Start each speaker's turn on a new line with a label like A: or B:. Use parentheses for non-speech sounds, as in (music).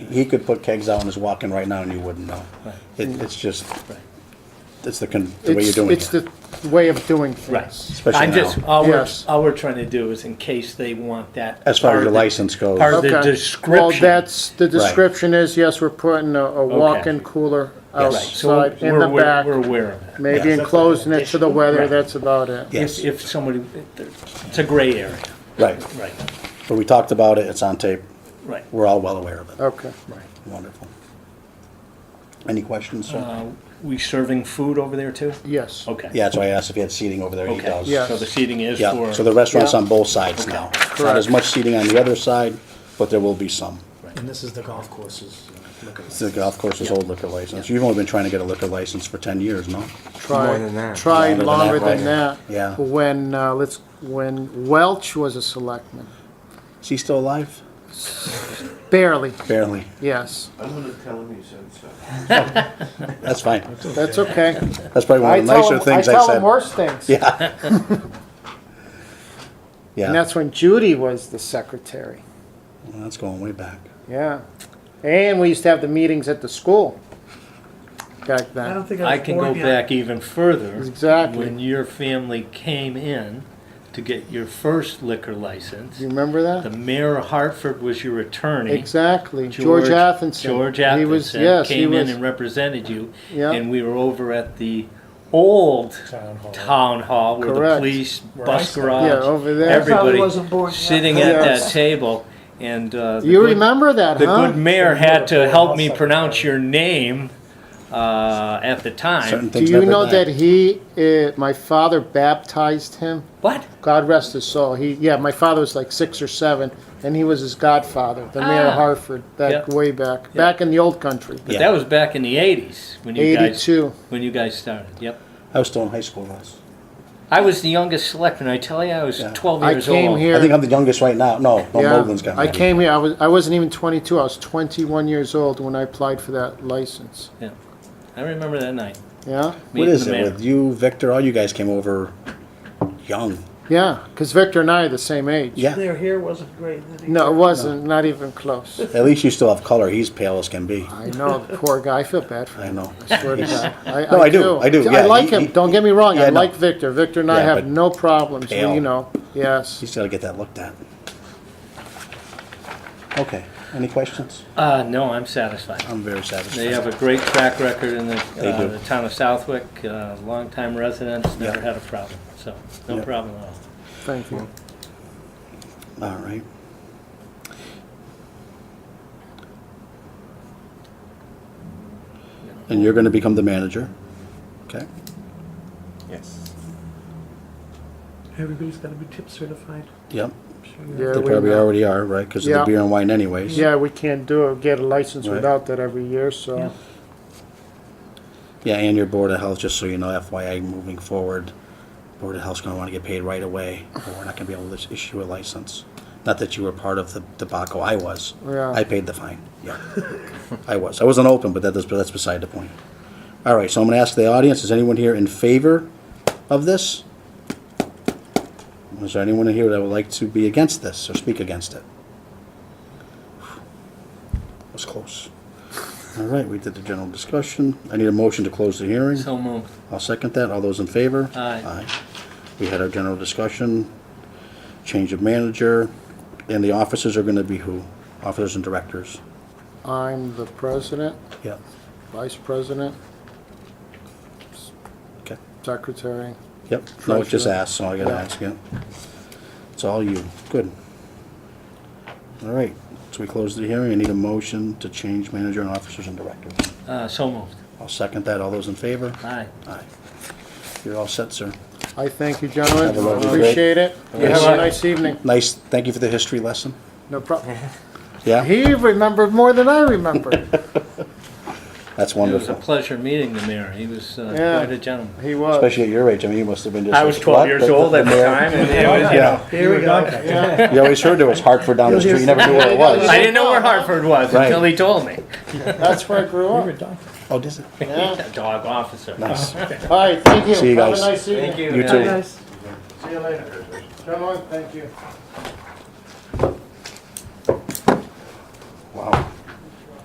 A: he could put kegs out on his walk-in right now and you wouldn't know.
B: Right.
A: It, it's just, it's the, con- the way you're
C: It's,
A: doing
C: it's
A: it,
C: the way of doing
B: Right.
C: things.
A: especially
B: I'm just,
A: now.
B: all we're,
C: Yes.
B: all we're trying to do is in case they want that.
A: As far
B: part
A: as your
B: of the-
A: license goes.
B: Part of
C: Okay.
B: the
C: Well,
B: description.
C: that's, the description is, yes, we're putting a, a walk-in cooler
B: Right, so
C: outside in
B: we're
C: the
B: aware-
C: back,
B: We're aware of that.
C: maybe
A: Yes.
C: enclosing it to the weather,
B: Right.
C: that's about it.
A: Yes.
B: If, if somebody, it's a gray area,
A: Right,
B: right,
A: but we talked about it, it's on tape,
B: right,
A: we're all well aware of it.
C: Okay.
B: right.
A: Wonderful. Any questions, sir?
B: Uh, We serving food over there too?
C: Yes.
B: Okay.
A: Yeah, that's why I asked if he had seating over there, he
B: Okay,
A: does.
C: Yeah.
B: so the seating is
A: Yeah,
B: for.
A: so the restaurant's
C: Yeah.
A: on both sides now. Not as
C: Correct.
A: much seating on the other side, but there will be some.
D: And this is the golf courses. you know, look at
A: The
D: this.
A: golf course's old liquor license, you've only been trying to get a liquor license for ten years, no?
D: More than
C: Tried,
D: that.
C: tried
A: Longer
C: longer
A: than
C: than
A: that,
C: that.
A: right. Yeah.
C: When, uh, let's, when Welch was a selectman,
A: Is he still alive?
C: barely,
A: Barely,
C: yes,
E: I'm gonna tell him he said so.
A: that's fine,
C: that's okay.
A: that's probably one
C: I
A: of the nicer
C: tell him, I
A: things I
C: tell him
A: said.
C: worse things.
A: Yeah.
C: And
A: Yeah,
C: that's when Judy was the secretary,
A: Well, that's going way back.
C: yeah. And we used to have the meetings at the school back
D: I don't
C: then.
D: think I
B: I
D: was
B: can
D: born
B: go
D: yet.
B: back even further.
C: Exactly.
B: When your family came in to get your first liquor license,
C: Do you remember
B: the
C: that?
B: mayor of Hartford was your attorney.
C: Exactly, George Athenson.
B: George
C: He was,
B: Athenson
C: yes, he
B: came in
C: was,
B: and represented you.
C: Yeah.
B: And we were over at the old
D: Town hall.
B: town hall where the
C: Correct.
B: police,
D: Where I
B: bus
D: sat.
B: garage.
C: yeah, over there.
B: every- Everybody
D: I wasn't born yet.
B: Sitting at that
C: Yes.
B: table and, uh. the
C: You
B: good-
C: remember that,
B: The good
C: huh?
B: mayor had to help me
D: Secretary.
B: pronounce your name, uh, at the
A: Certain
B: time.
C: Do
A: things
C: you
A: never
C: know
A: die.
C: that he, uh, my father baptized him?
B: What?
C: God rest his soul. He, yeah, my father was like six or seven, and he was his godfather, the mayor
B: Ah.
C: of Hartford, back
B: Yeah.
C: way back,
B: Yeah.
C: back in the old country.
B: But
A: Yeah.
B: that was back in the eighties when you guys,
C: 82.
B: when you guys started, yep.
A: I was still in high school, Russ.
B: I was the youngest selectman, I tell you, I was
A: Yeah.
B: twelve
C: I
B: years old.
C: came here-
A: I think I'm the youngest right now, no, no,
C: Yeah,
A: Mogul's got me.
C: I came here, I was, I wasn't even twenty-two, I was twenty-one years old when I applied for that license,
B: I remember that night.
C: yeah?
B: Me
A: What
B: and
A: is
B: the
A: it
B: mayor.
A: with you, Victor, all you guys came over young,
C: Yeah, because Victor and I are the same age.
A: yeah,
D: Their hair wasn't great. did it?
C: No, it wasn't, not even close.
A: at least you still have color, he's pale as can be,
C: I know, the poor guy, I feel bad for
A: I
C: him,
A: know.
C: I swear
A: (laughs)
C: to God.
A: No, I do, I do, yeah,
C: I like
A: he-
C: him,
A: he-
C: don't get me wrong,
A: yeah,
C: I
A: no.
C: like Victor, Victor and I
A: Yeah,
C: have
A: but
C: no problems, we-
A: pale.
C: you know, yes.
A: He's gotta get that looked at. Okay, any questions?
B: Uh, no, I'm satisfied.
A: I'm very satisfied.
B: They have a great track record in the,
A: They
B: uh,
A: do.
B: the town of Southwick, uh, longtime residents, never
A: Yeah.
B: had a problem, so, no
A: Yeah.
B: problem at all.
C: Thank you.
A: All right. And you're gonna become the manager, okay?
D: Yes. Everybody's got to be tip certified.
A: Yep,
D: I'm sure you-
C: Yeah,
A: they
C: we
A: probably
C: know.
A: already are, right, because of the
C: Yeah.
A: beer and wine anyways.
C: Yeah, we can't do it, get a license
A: Right.
C: without that every year,
D: Yeah.
C: so,
A: Yeah, and your Board of Health, just so you know, FYI, moving forward, Board of Health's gonna wanna get paid right away, or we're not gonna be able to issue a license. Not that you were part of the debacle, I was.
C: Yeah.
A: I paid the fine, yeah. I was, I wasn't open, but that is, but that's beside the point. All right, so I'm gonna ask the audience, is anyone here in favor of this? Is there anyone in here that would like to be against this or speak against it? That was close. All right, we did the general discussion. I need a motion to close the hearing.
B: So moved.
A: I'll second that. All those in favor?
B: Aye.
A: We had our general discussion, change of manager, and the officers are gonna be who? Officers and directors.
C: I'm the president,
A: Yeah.
C: vice president,
A: Okay.
C: secretary.
A: Yep. No, it just
C: Treasurer.
A: asked, so I gotta
C: Yeah.
A: ask, yeah. It's all you. Good. All right, so we close the hearing. I need a motion to change manager and officers and directors.
B: Uh, so moved.
A: I'll second that. All those in favor?
B: Aye.
A: Aye. You're all set, sir.
C: I thank you, gentlemen.
A: Have a lovely
C: Appreciate it. You
A: Yes.
C: have a nice evening.
A: Nice, thank you for the history lesson.
C: No problem.
A: Yeah,
C: He remembered more than
A: (laughs)
C: I remember.
A: that's
B: It was a
A: wonderful.
B: pleasure meeting the mayor. He was uh,
C: Yeah.
B: quite a gentleman.
C: He was.
A: Especially at your age, I mean, you must have been just.
B: I was
A: like,
B: 12
A: what?
B: years old at the
A: mayor-
B: time, and it was, you know, (laughs)
A: Yeah,
D: Here we go.
C: Yeah.
A: you always heard there was Hartford down the street, you never knew
B: (laughs)
A: where it (laughs)
B: I
A: was.
B: didn't know where Hartford was
A: Right.
B: until he told me.
C: That's where I grew
D: You're a
C: up.
D: doctor.
A: Oh, does it?
C: Yeah.
B: Dog officer.
A: Nice.
B: Uh-huh.
C: All right, thank you.
A: See you guys.
C: Have a nice evening.
B: Thank you.
A: You
B: Yeah.
A: too.
D: Nice.
C: See you later. Gentlemen, thank you.
A: Wow.